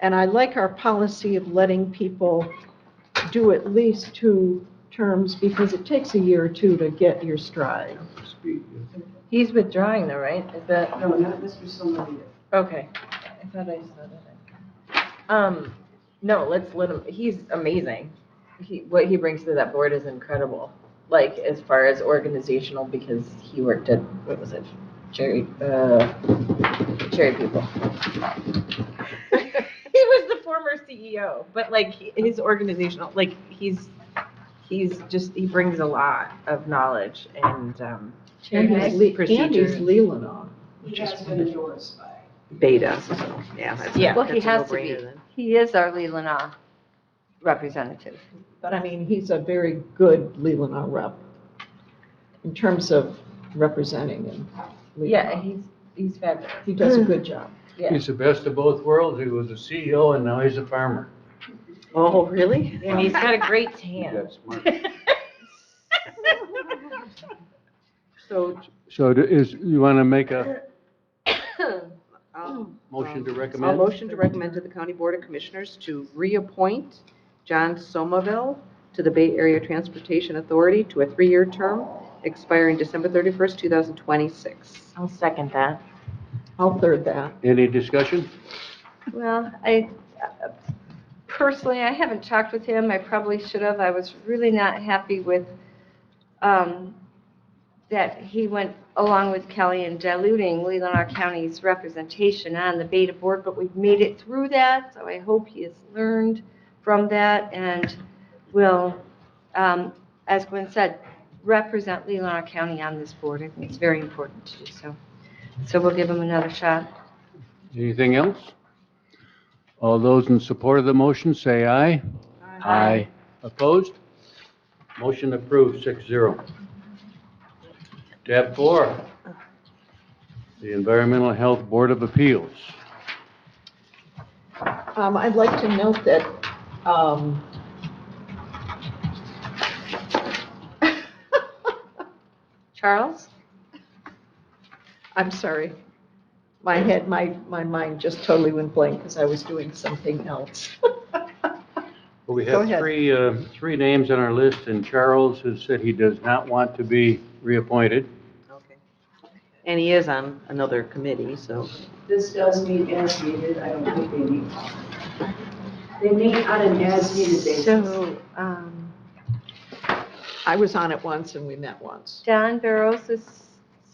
And I like our policy of letting people do at least two terms because it takes a year or two to get your stride. Speed, yeah. He's withdrawing though, right? Is that, No, not Mr. Somebody. okay. I thought I saw that. Um, no, let's let him, he's amazing. He, what he brings to that board is incredible. Like, as far as organizational, because he worked at, what was it? Cherry, uh, Cherry People. He was the former CEO, but like, he- his organizational, like, he's, he's just, he brings a lot of knowledge and, um, And he's Okay. Le- and he's Procedures. Leelanau. He has been endorsed by. Beta, so, yeah. that's a- Yeah. Well, he that's a has to no-brainer be. then. He is our Leelanau representative. But I mean, he's a very good Leelanau rep in terms of representing him. yeah, he's, he's fabulous. He does a good job. Yeah. He's the best of both worlds. He was a CEO and now he's a farmer. Oh, really? And he's got a great He's tan. that smart. So So do- is, you want to make a um, motion to A recommend? motion to recommend to the County Board of Commissioners to reappoint John Somaville to the Bay Area Transportation Authority to a three-year term expiring December 31st, 2026. I'll second that. I'll third that. Any discussion? Well, I, personally, I haven't talked with him, I probably should have, I was really not happy with, um, that he went along with Kelly in diluting Leelanau County's representation on the Beta Board, but we've made it through that, so I hope he has learned from that and will, um, as Gwen said, represent Leelanau County on this board, I think it's very important to do so. So we'll give him another shot. Anything else? All those in support of the motion, say aye. Aye. Opposed? Motion approved, six zero. Tab four, the Environmental Health Board of Appeals. Um, I'd like to note that, um, Charles? I'm sorry. My head, my, my mind just totally went blank because I was doing something else. Well, We Go have ahead. three, uh, three names on our list, and Charles has said he does not want to be reappointed. Okay. And he is on another committee, so. This does meet as needed, I don't think they meet. They meet on an as needed basis. So, um, I was on it once and we met once. John Barrows is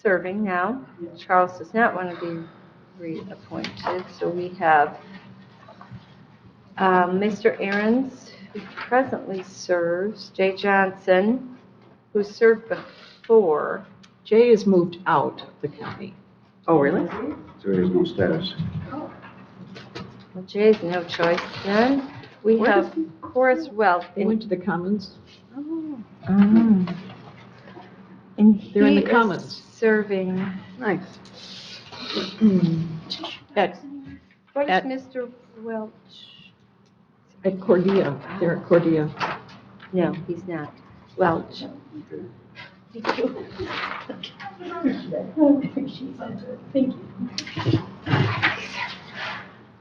serving now. Charles does not want to be reappointed, so we have um, Mr. Aaron's, who presently serves, Jay Johnson, who served before. Jay has moved out of the county. Oh, really? So there's no status. Well, Jay's no choice then. We Where have Horace Welch, They and went to the Commons. and They're in Mm. he the is Commons. serving. Nice. At, What is At- Mr. Welch? at Cordia, they're at Cordia. No, he's not. Welch.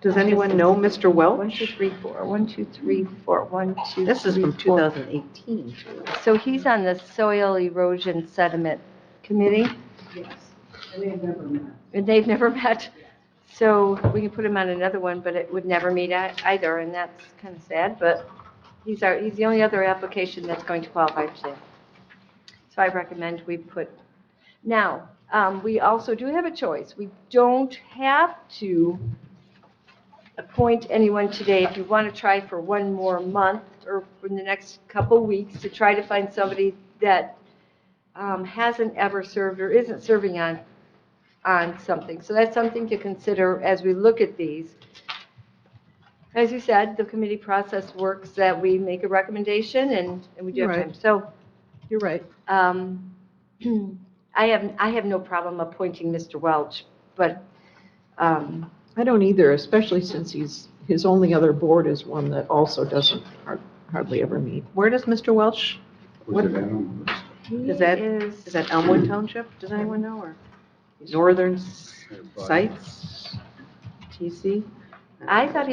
Does anyone know Mr. One, two, Welch? three, four, one, two, three, four, one, two, This is three, from four. 2018. So he's on the Soil Erosion Sediment Committee, Yes, and they've never met. and they've never met. So we can put him on another one, but it would never meet ei- either, and that's kind of sad, but he's our, he's the only other application that's going to qualify for that. So I recommend we put, now, um, we also do have a choice. We don't have to appoint anyone today. If you want to try for one more month or in the next couple weeks to try to find somebody that um, hasn't ever served or isn't serving on, on something. So that's something to consider as we look at these. As you said, the committee process works that we make a recommendation and, and we do have Right. time. So You're right. um, I have, I have no problem appointing Mr. Welch, but, um, I don't either, especially since he's, his only other board is one that also doesn't har- hardly ever meet. Where does Mr. Welch, Was it on the list? he Is that- is, oh is that Elmwood Township? Does anyone know, or Northern S- Sites? TC? I thought he